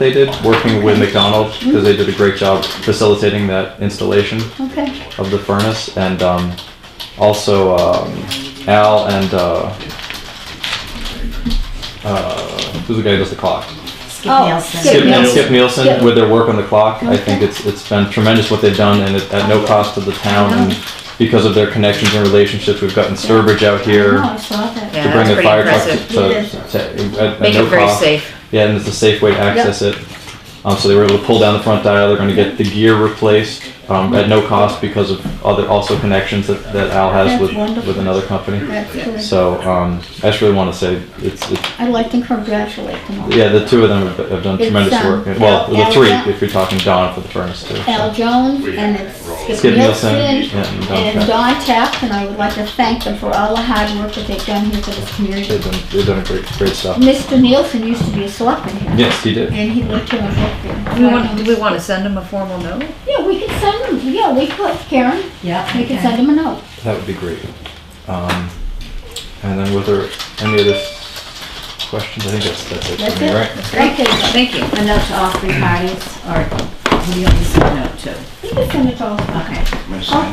they did working with McDonald's because they did a great job facilitating that installation Okay. of the furnace and um, also um, Al and uh, uh, who's the guy who does the clock? Skip Oh, Nielsen. Skip Nielsen. Skip Nielsen Yeah. with their work on the clock. I Okay. think it's it's been tremendous what they've done and it, at no cost to the town and because of their connections and relationships we've gotten Sturbridge out here. No, I saw that. Yeah. to bring that's the pretty fire truck to- impressive. to, to at, at Make no it very cost. safe. Yeah, and it's a safe way to access it. Um, so they were able to pull down the front dial. They're going to get the gear replaced um, at no cost because of other also connections that, that Al has That's with wonderful. with another company. That's good. So um, I just really want to say it's, it's I'd like to congratulate them all. yeah the two of them have, have done It's, tremendous um, work. Well, the Al- three Al- if you're talking Don for the furnace too. Al Jones and it's Skip Skip Nielsen Nielsen and Don and Taft. Don Taft, and I would like to thank them for all the hard work that they've done here for this They've community. done they've done great great stuff. Mr. Nielsen used to be a selectman here, Yes, he did. and he lived here in Brookfield. Do we want, do we want to send them a formal note? Yeah, we could send them, yeah, we could, Karen, Yeah. we could send them a note. That would be great. Um, and then were there any other questions? I think that's, that's it That's for me, it. right? Okay, then. Thank you. And that's to all three parties, or who do you want me to send a note to? You can send it all. Okay.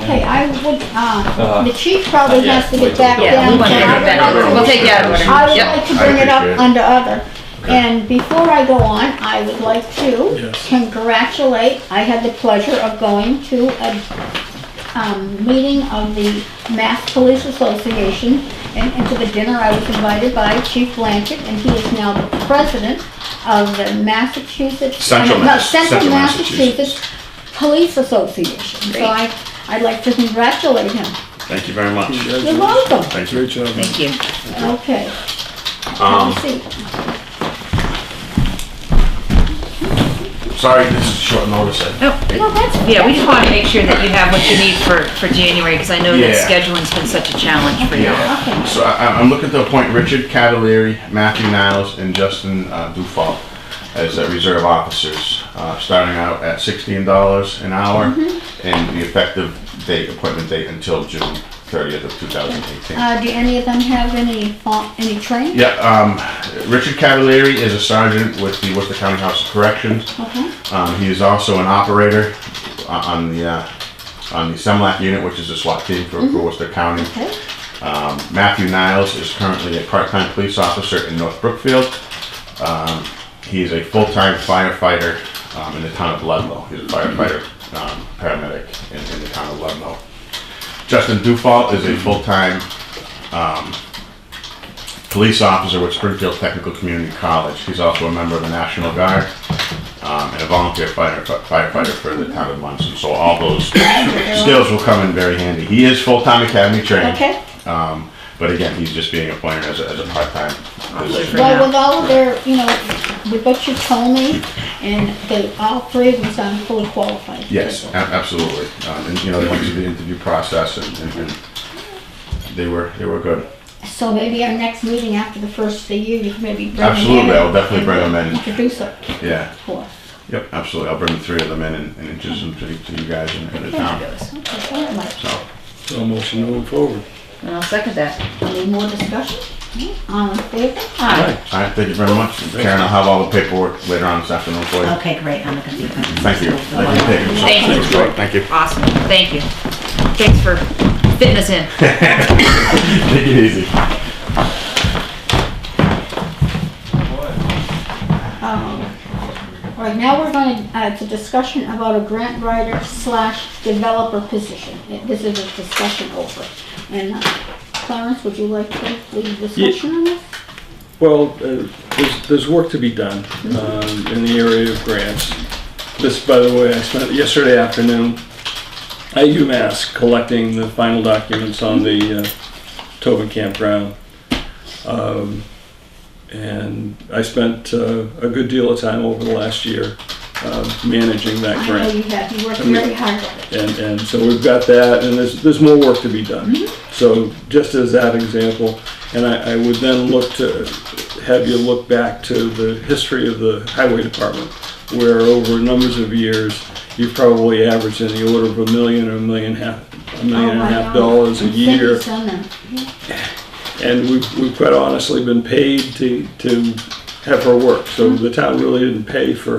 Okay, I would, Uh, uh, the chief probably yeah, has to wait get till back we go. Yeah, down. we want to but get I it would like back. to- We'll take you out of I order. would Yep. like to bring it appreciate up it. under other. And before I go on, I would like to congratulate, I had the pleasure of going to a um, meeting of the Mass Police Association, and and to the dinner I was invited by Chief Blanchett, and he is now the president of the Massachusetts... uh, Central no, Mass- Central Central Massachusetts Police Association. So Great. I, I'd like to congratulate him. Thank you very much. You're welcome. Thank you. Great job. man. Thank you. Okay. Um, Have a seat. Sorry, this is short notice. eh? I- No, No, that's- yeah, we just want to make sure that you have what you need for, for January, because I know that Yeah. scheduling's been such a challenge for you. Yeah. So I, I'm- I'm looking to appoint Richard Cavalieri, Matthew Niles, and Justin uh, Dufault as uh, reserve officers, uh, starting out at sixteen dollars an hour, and the effective date, appointment date until June thirtieth of two thousand eighteen. Uh, do any of them have any, fa- any training? Yeah, um, Richard Cavalieri is a sergeant with the Worcester County House of Corrections. Okay. Um, he is also an operator uh, on the, uh, on the Semlac unit, which is a SWAT team for for Worcester County. Okay. Um, Matthew Niles is currently a part-time police officer in North Brookfield. Um, He is a full-time firefighter um, in the town of Ludlow. He's a firefighter, um, paramedic in in the town of Ludlow. Justin Dufault is a full-time um, police officer with Springfield Technical Community College. He's also a member of the National Guard um, and a volunteer fire- firefighter for the town of Munson. So all those skills will come in very handy. He is full-time academy trained. Okay. Um, but again, he's just being appointed as a, as a part-time position. Well, with all of their, you know, with what you told me, and they, all three of them sound fully qualified. Yes, a- absolutely. Um, and, you know, they went through the interview process and, and, and they were, they were good. So maybe our next meeting after the first of the year, you can maybe bring them in. Absolutely, I will definitely bring them in. and Introduce them Yeah, for us. yep, absolutely. I'll bring the three of them in and, and introduce them to, to you guys and and the town. And Okay, all right. So, So motion moving forward. I'll second that. Any more discussion? All in favor? Aye. all right, thank you very much. Karen, I'll have all the paperwork later on this afternoon for you. Okay, great, I'm looking at the. Thank you. Thank you. Thank you. Thank you. Thank you. Awesome, thank you. Thanks for fitting us in. Take it easy. Um, All right, now we're going to, uh, it's a discussion about a grant writer slash developer position. This is a discussion over. And uh, Clarence, would you like to lead the discussion on this? Well, uh, there's, there's work to be done um, in the area of grants. This, by the way, I spent yesterday afternoon at UMass collecting the final documents on the uh, Tobin campground. Um, And I spent uh, a good deal of time over the last year uh, managing that I know grant. you have, you worked I mean- very hard on it. And, and so we've got that, and there's, there's more work to be done. So just as that example, and I, I would then look to, have you look back to the history of the highway department, where over numbers of years, you've probably averaged in the order of a million or a million and a half, a million and a Oh, I half know. dollars a And year. Cindy's done them. And we've, we've quite honestly been paid to, to have her work. So the town really didn't pay for